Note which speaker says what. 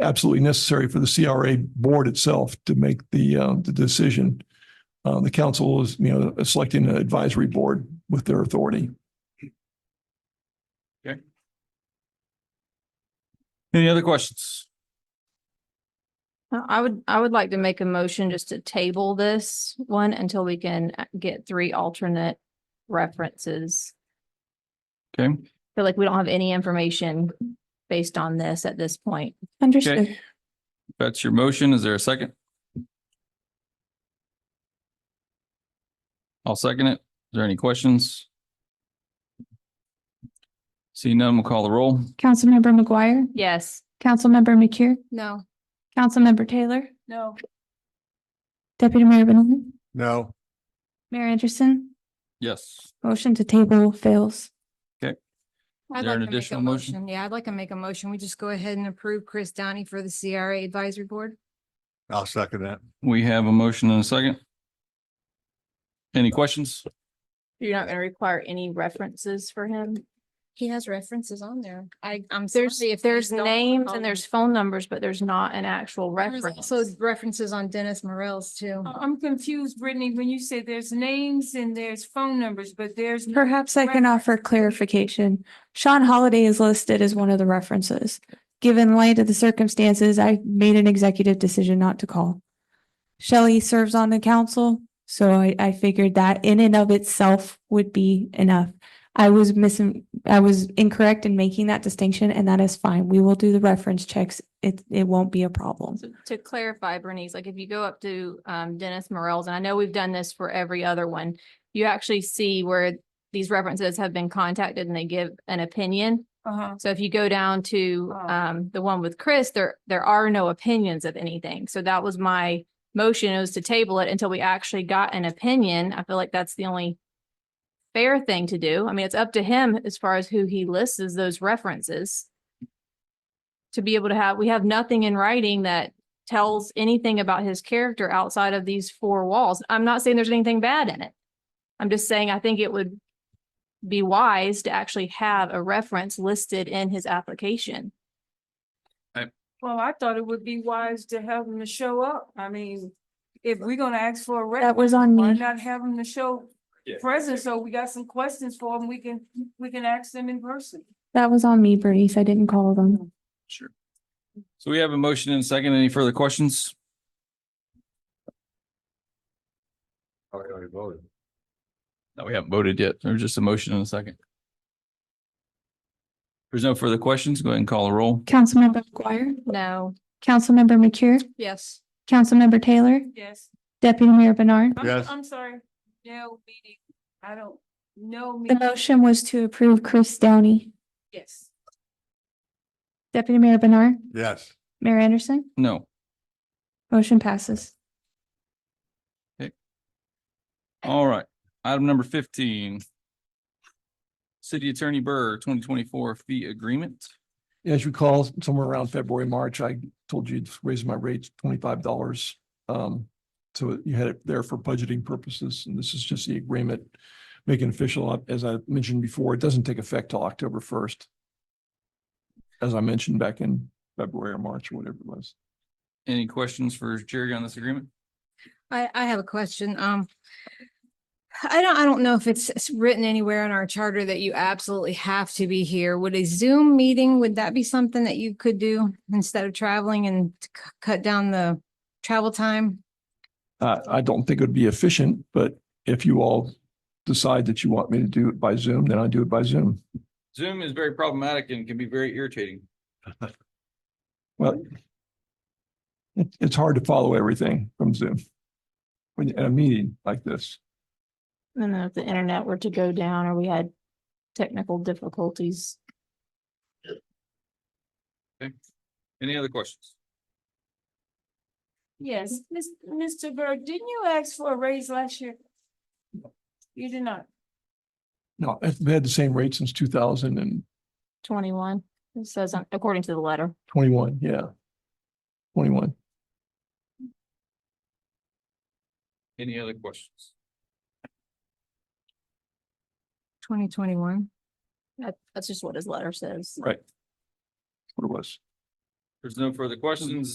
Speaker 1: absolutely necessary for the CRA board itself to make the, uh, the decision. Uh, the council is, you know, selecting an advisory board with their authority.
Speaker 2: Any other questions?
Speaker 3: Uh, I would, I would like to make a motion just to table this one until we can uh, get three alternate references.
Speaker 2: Okay,
Speaker 3: Feel like we don't have any information based on this at this point.
Speaker 2: okay. That's your motion. Is there a second? I'll second it. Is there any questions? See none, we'll call the roll.
Speaker 4: Councilmember McGuire,
Speaker 3: Yes.
Speaker 4: Councilmember McCure,
Speaker 3: No.
Speaker 4: Councilmember Taylor,
Speaker 3: No.
Speaker 4: Deputy Mayor Benoit,
Speaker 5: No.
Speaker 4: Mayor Anderson,
Speaker 2: Yes.
Speaker 4: motion to table fails.
Speaker 2: there an
Speaker 6: I'd like to make
Speaker 2: additional
Speaker 6: a
Speaker 2: motion?
Speaker 6: motion. Yeah, I'd like to make a motion. We just go ahead and approve Chris Downey for the CRA Advisory Board.
Speaker 5: I'll second that.
Speaker 2: We have a motion and a second. Any questions?
Speaker 3: You're not going to require any references for him?
Speaker 6: He has references on there. I, I'm
Speaker 3: There's,
Speaker 6: sorry if
Speaker 3: if there's names and there's
Speaker 6: there's
Speaker 3: phone numbers, but there's not an actual
Speaker 6: There's
Speaker 3: reference.
Speaker 6: also references on Dennis Morels too.
Speaker 7: I'm confused, Brittany, when you say there's names and there's phone numbers, but there's. no
Speaker 4: Perhaps I can offer
Speaker 7: reference.
Speaker 4: clarification. Sean Holiday is listed as one of the references. Given light of the circumstances, I made an executive decision not to call. Shelley serves on the council, so I, I figured that in and of itself would be enough. I was missing, I was incorrect in making that distinction, and that is fine. We will do the reference checks. It, it won't be a problem.
Speaker 3: So To clarify, Bernice, like if you go up to um Dennis Morel's, and I know we've done this for every other one, you actually see where these references have been contacted and they give an opinion.
Speaker 7: Uh-huh.
Speaker 3: So if you go down to
Speaker 7: Oh.
Speaker 3: um the one with Chris, there there are no opinions of anything. So that was my motion is to table it until we actually got an opinion. I feel like that's the only fair thing to do. I mean, it's up to him as far as who he lists as those references. To be able to have, we have nothing in writing that tells anything about his character outside of these four walls. I'm not saying there's anything bad in it. I'm just saying I think it would be wise to actually have a reference listed in his application.
Speaker 7: Well, I thought it would be wise to have them to show up. I mean, if we're gonna ask for a
Speaker 4: That
Speaker 7: rep,
Speaker 4: was on
Speaker 7: why
Speaker 4: me.
Speaker 7: not have them to show
Speaker 2: Yeah.
Speaker 7: present? So we got some questions for them. We can, we can ask them in person.
Speaker 4: That was on me, Bernice. I didn't call them.
Speaker 2: Sure. So we have a motion and a second. Any further questions?
Speaker 5: I Oh, already voted.
Speaker 2: No, we haven't voted yet. There's just a motion and a second. If There's no further questions. Go ahead and call a roll.
Speaker 4: Councilmember McGuire,
Speaker 3: No,
Speaker 4: Councilmember McCure,
Speaker 6: Yes.
Speaker 4: Councilmember Taylor,
Speaker 7: Yes.
Speaker 4: Deputy Mayor Bernard.
Speaker 7: I'm-
Speaker 5: Yes.
Speaker 7: I'm sorry. No meeting. I don't, no
Speaker 4: The
Speaker 7: meeting.
Speaker 4: motion was to approve Chris Downey.
Speaker 7: Yes.
Speaker 4: Deputy Mayor Bernard,
Speaker 5: Yes.
Speaker 4: Mayor Anderson,
Speaker 2: No.
Speaker 4: motion passes.
Speaker 2: All right. Item number fifteen. City Attorney Burr, twenty twenty-four fee agreement.
Speaker 1: As you recall, somewhere around February, March, I told you to raise my rates twenty-five dollars. Um, so you had it there for budgeting purposes, and this is just the agreement. Making official, as I mentioned before, it doesn't take effect till October first. As I mentioned back in February or March or whatever it was.
Speaker 2: Any questions for Jerry on this agreement?
Speaker 6: I, I have a question. Um, I don't, I don't know if it's it's written anywhere in our charter that you absolutely have to be here. Would a Zoom meeting, would that be something that you could do instead of traveling and c- cut down the travel time?
Speaker 1: Uh, I don't think it would be efficient, but if you all decide that you want me to do it by Zoom, then I do it by Zoom.
Speaker 2: Zoom is very problematic and can be very irritating.
Speaker 1: Well, it, it's hard to follow everything from Zoom when you're at a meeting like this.
Speaker 3: I don't know if the internet were to go down or we had technical difficulties.
Speaker 2: Any other questions?
Speaker 7: Yes, Miss, Mr. Bird, didn't you ask for a raise last year? You did not.
Speaker 1: No, I've had the same rate since two thousand and
Speaker 3: Twenty-one, it says, on- according to the letter.
Speaker 1: twenty-one, yeah. Twenty-one.
Speaker 2: Any other questions?
Speaker 6: Twenty twenty-one?
Speaker 3: That, that's just what his letter says.
Speaker 1: Right. That's What it was.
Speaker 2: There's no further questions.